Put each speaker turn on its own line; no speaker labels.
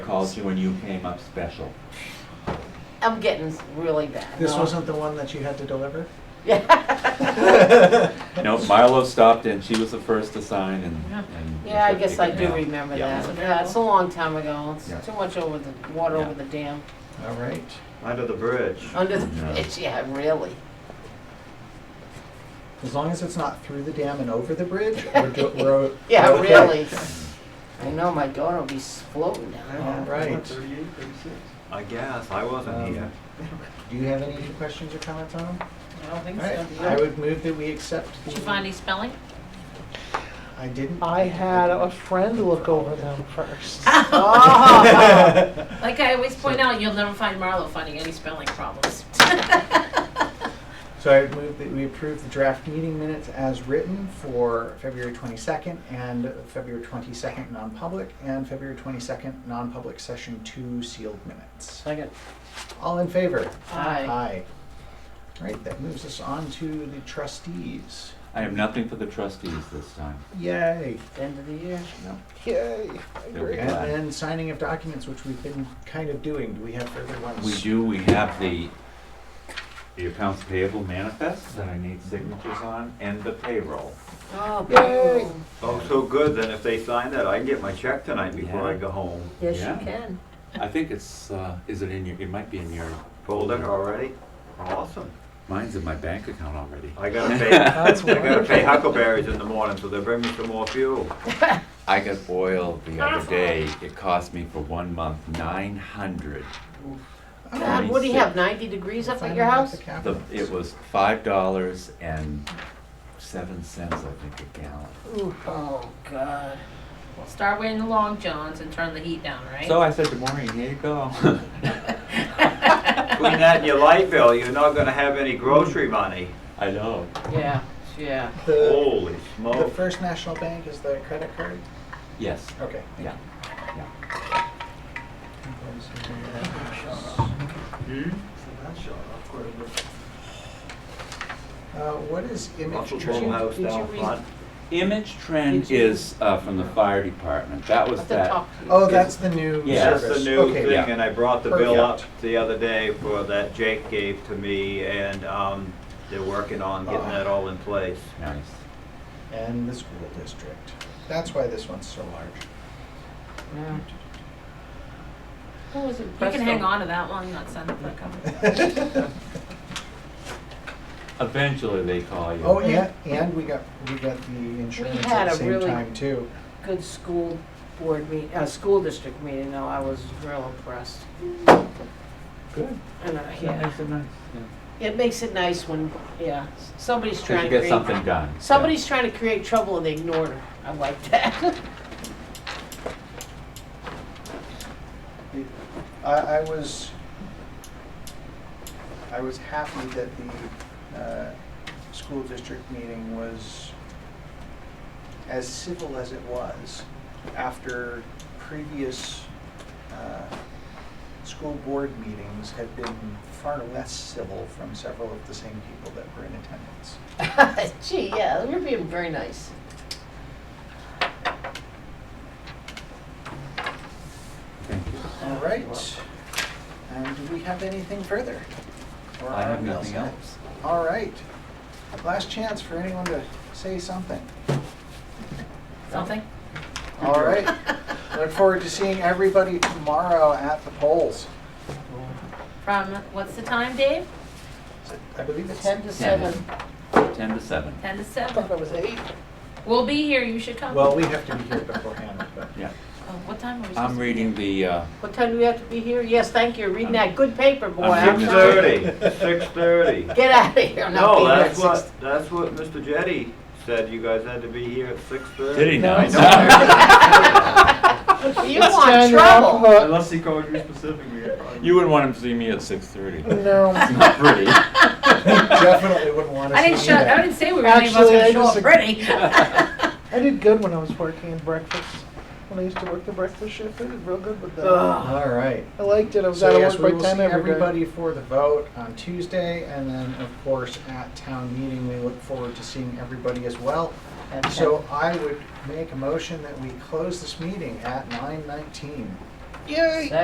called you and you came up special.
I'm getting really bad.
This
No.
wasn't the one that you had to deliver?
Yeah.
No, Marlo stopped and she was the first to sign and. and-
Yeah, I guess I do
Yeah.
remember
Yeah.
that. Yeah, it's a long time ago. It's
Yeah.
too much over the, water
Yeah.
over the dam,
All right.
Under the bridge.
under the
Yeah.
bridge, yeah, really.
As long as it's not through the dam and over the bridge, we're, do- we're o-
Yeah,
we're okay.
really. I know my daughter will be floating down there.
All right.
Thirty-eight, thirty-six. I guess, I wasn't
Um,
here.
Do you have any questions or comments on them?
I don't
All
think
right.
so.
I would move that we accept.
Did you
the-
find any spelling?
I didn't.
I had a friend look over them first.
Oh,
Like I always point out, you'll never find Marlo finding any spelling problems.
So I would move that we approve the draft meeting minutes as written for February 22nd and February 22nd non-public and February 22nd non-public session two sealed minutes.
Second.
All in favor?
Aye.
Aye. All right, that moves us on to the trustees.
I have nothing for the trustees this time.
Yay.
End of the year.
Yay.
They'll be
And
glad.
then signing of documents, which we've been kind of doing. Do we have further ones?
We do, we have the, the accounts payable manifest that I need signatures on and the payroll.
Oh,
Yay.
boom.
Oh, so good, then if they sign that, I can get my check tonight before I
Yeah.
go home.
Yes,
Yeah.
you can.
I think it's, uh, is it in your, it might be in your
Folder already? Awesome.
Mine's in my bank account already.
I gotta pay, I
Oh, That's
gotta pay
wonderful.
huckleberries in the morning, so they bring me some more fuel.
I got oil the other day. It cost me for one month nine hundred.
God, what do you have, 90 degrees up at your house?
The, it was five dollars and seven cents, I think, a gallon.
Ooh, Oh, God.
Well, Start wearing the long johns and turn the heat down, right?
So I said to Maureen, "Here you go."
Between that and your light bill, you're not gonna have any grocery money.
I know.
Yeah, yeah.
The,
Holy
Oh.
the
smoke.
First National Bank is the credit card?
Yes.
Okay. thank
Yeah.
you. Hmm? Uh, what is image?
Russell
Did you-
House
did you
down
read-
front.
Image trend is uh, from the fire department. That was
Up the
that.
top.
Oh, that's the new
Yeah.
That's
service.
the new
Okay.
thing,
Yeah.
and I brought the bill up
Perfect.
the other day for that Jake gave to me, and, um, they're working on getting that all in place.
Nice.
And the school district. That's why this one's so large.
Yeah. Who was it?
You can hang on to that one, not send it for a couple.
Eventually, they call you.
Oh, yeah, and we got, we got the insurance
had
at the
a
same
really-
time too.
Good school board meet, uh, school district meeting, though, I was real impressed.
Good.
And, uh,
That
yeah,
makes it nice. Yeah.
it makes it nice when, yeah, s- somebody's
'Cause
trying to
you
create.
get something done.
Somebody's trying to create trouble and they ignored her. I like that.
I, I was, I was happy that the, uh, school district meeting was as civil as it was after previous, uh, school board meetings had been far less civil from several of the same people that were in attendance.
Gee, yeah, you're being very nice.
Thank you.
All right. And do we have anything further? Or
I
are
have
we all
nothing
set?
else.
All right. Last chance for anyone to say something.
Something?
All right. Look forward to seeing everybody tomorrow at the polls.
From, what's the time, Dave?
Is it- I believe it's
Ten to seven.
Ten to seven.
Ten to seven.
it was eight.
We'll be here, you should come.
Well, we have to be here beforehand, but.
Yeah.
Oh, What time are we supposed to be?
I'm reading the. Uh,
What time do we have to be here? Yes, thank you. Reading that good paper, boy.
Um, I'm
I'm
Six
getting
trying-
thirty. Six thirty.
Get out of here. I'm not
No,
being here
that's
at six-
what, that's what Mr. Jetty said, you guys had to be here at six thirty.
Did he now?
I know.
You want trouble.
Unless he called you specifically.
You wouldn't want him to see me at six thirty.
No,
Not pretty.
definitely wouldn't want
I
to
didn't
see
show, I
that.
didn't say we were any of us
Actually, I
gonna show up
disagree.
ready.
I did good when I was working in breakfast. When I used to work the breakfast shift, I did real good with that.
All right.
I liked it. I was out
So
of
yes, we
work
will
by
see
ten every day.
everybody for the vote on Tuesday, and then, of course, at town meeting, we look forward to seeing everybody as well. So I would make a motion that we close this meeting at nine nineteen.
Yay!